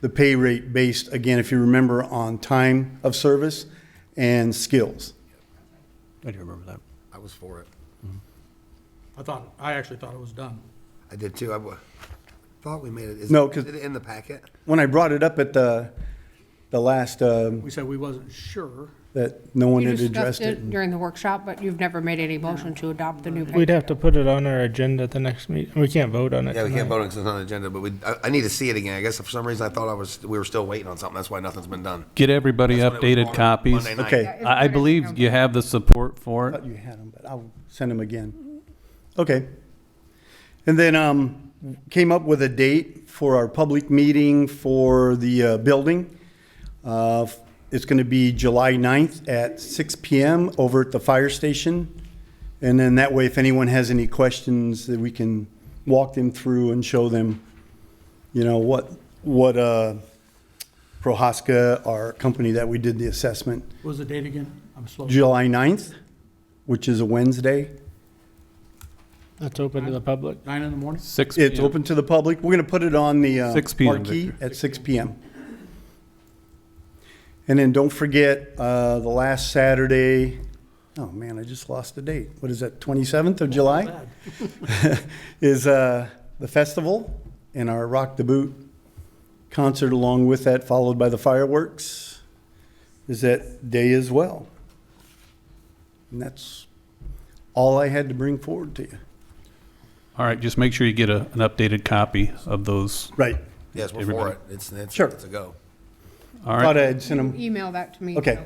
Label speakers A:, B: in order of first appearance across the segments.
A: the pay rate based, again, if you remember, on time of service and skills.
B: I do remember that.
C: I was for it.
D: Mm-hmm. I thought, I actually thought it was done.
C: I did too. I wa- thought we made it. Is-
A: No, 'cause-
C: Is it in the packet?
A: When I brought it up at the, the last, um,
D: We said we wasn't sure.
A: that no one
E: You
A: had addressed
E: discussed
A: it.
E: it during the workshop, but you've never made any motion to adopt the new pay
F: We'd have to put it on our agenda at the next meeting. We can't vote on it
C: Yeah, we can't
F: tonight.
C: vote on it 'cause it's not on the agenda, but we, I, I need to see it again. I guess for some reason I thought I was, we were still waiting on something. That's why nothing's been done.
G: Get everybody
C: That's when it was
G: updated
C: on
G: copies.
C: Monday night.
A: Okay.
G: I, I believe you have the support for
A: thought
G: it.
A: you had them, but I'll send them again. Okay. And then um, came up with a date for our public meeting for the uh, building. Uh, It's going to be July 9th at 6 PM over at the fire station. And then that way, if anyone has any questions, that we can walk them through and show them, you know, what, what uh, Prohaska, our company that we did the assessment,
D: What was the date again? I'm slow.
A: July 9th, which is a Wednesday.
F: That's open to the public.
D: Nine in the morning?
G: Six.
A: It's
G: p.m.
A: open to the public. We're going to put it on the uh,
G: 6 p.m.,
A: marquee
G: Victor.
A: at 6 p.m. And then don't forget, uh, the last Saturday, oh man, I just lost the date. What is that, 27th of July?
D: Bad.
A: Is uh, the festival and our Rock the Boot concert along with that, followed by the fireworks, is that day as well. And that's all I had to bring forward to you.
G: All right, just make sure you get a, an updated copy of those.
A: Right.
C: Yes, we're for
G: Everybody.
C: it. It's, it's,
A: Sure.
C: it's a go.
G: All
A: Thought
G: right,
A: I'd send 'em-
E: Email that to me.
A: Okay.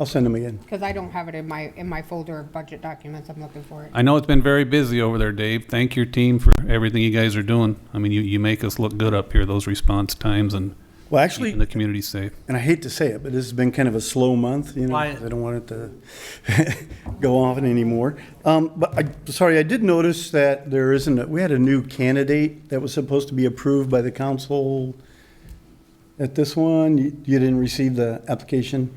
A: I'll send them again.
E: Because I don't have it in my, in my folder of budget documents. I'm looking for it.
G: I know it's been very busy over there, Dave. Thank your team for everything you guys are doing. I mean, you, you make us look good up here, those response times and
A: Well, actually,
G: keeping the community safe.
A: and I hate to say it, but this has been kind of a slow month, you know.
D: Wyatt.
A: I don't want it to go on anymore. Um, but I, sorry, I did notice that there isn't, a- we had a new candidate that was supposed to be approved by the council at this one. You, you didn't receive the application?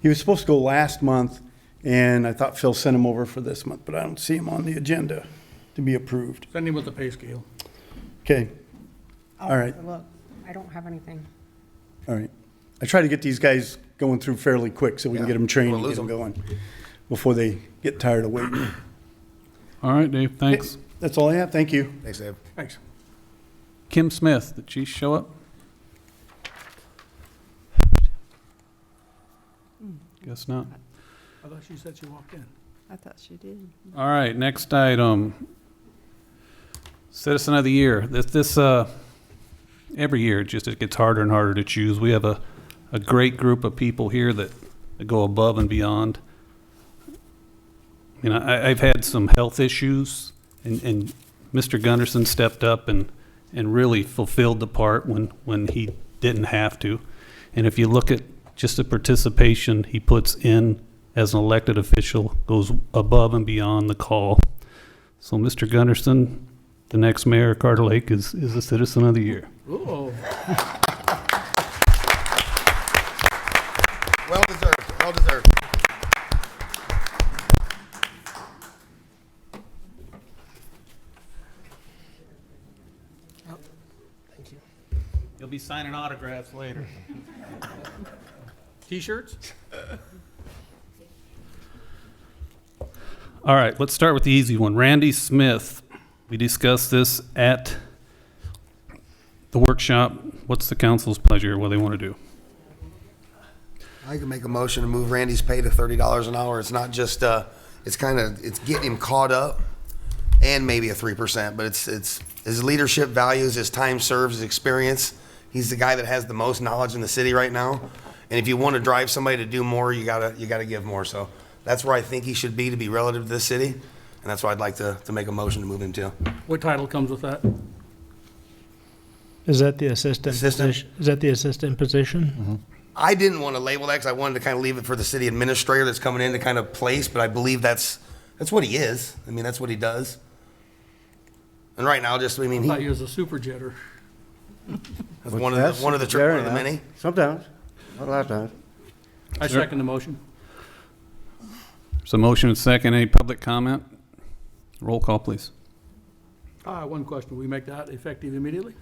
A: He was supposed to go last month, and I thought Phil sent him over for this month, but I don't see him on the agenda to be approved.
D: Send him with the pay scale.
A: Okay,
E: I'll
A: All right.
E: Look, I don't have anything.
A: All right. I try to get these guys going through fairly quick so we can
C: Yeah.
A: get them trained and
C: We'll
A: get
C: lose
A: them going before they get tired of waiting.
G: All right, Dave, thanks.
A: That's all I have. Thank you.
C: Thanks, Dave.
D: Thanks.
G: Kim Smith, did she show up? Guess not.
D: I thought she said she walked in.
H: I thought she did.
G: All right, next item. Citizen of the Year. This, this, uh, every year, it just, it gets harder and harder to choose. We have a, a great group of people here that go above and beyond. You know, I, I've had some health issues and, and Mr. Gunderson stepped up and, and really fulfilled the part when, when he didn't have to. And if you look at just the participation he puts in as an elected official, goes above and beyond the call. So Mr. Gunderson, the next mayor of Carter Lake is, is a citizen of the year.
D: Ooh.
C: Well deserved, well deserved.
G: You'll be signing autographs later.
D: T-shirts?
G: All right, let's start with the easy one. Randy Smith, we discussed this at the workshop. What's the council's pleasure, what they want to do?
C: I can make a motion to move Randy's pay to thirty dollars an hour. It's not just, uh, it's kind of, it's getting him caught up and maybe a three percent, but it's, it's, his leadership values, his time served, his experience. He's the guy that has the most knowledge in the city right now. And if you want to drive somebody to do more, you gotta, you gotta give more. So that's where I think he should be to be relative to this city. And that's why I'd like to, to make a motion to move him to.
D: What title comes with that?
F: Is that the assistant
C: Assistant.
F: position? Is that the assistant position?
C: I didn't want to label that because I wanted to kind of leave it for the city administrator that's coming in to kind of place, but I believe that's, that's what he is. I mean, that's what he does. And right now, just, I mean, he,
D: Thought you was a super jetter.
C: that's one of the, one of the, tri- one of the many.
I: Sometimes, not a lot of times.
D: I
G: Sure.
D: second the motion.
G: So motion and second, any public comment? Roll call, please.
D: Ah, one question. We make that effective immediately?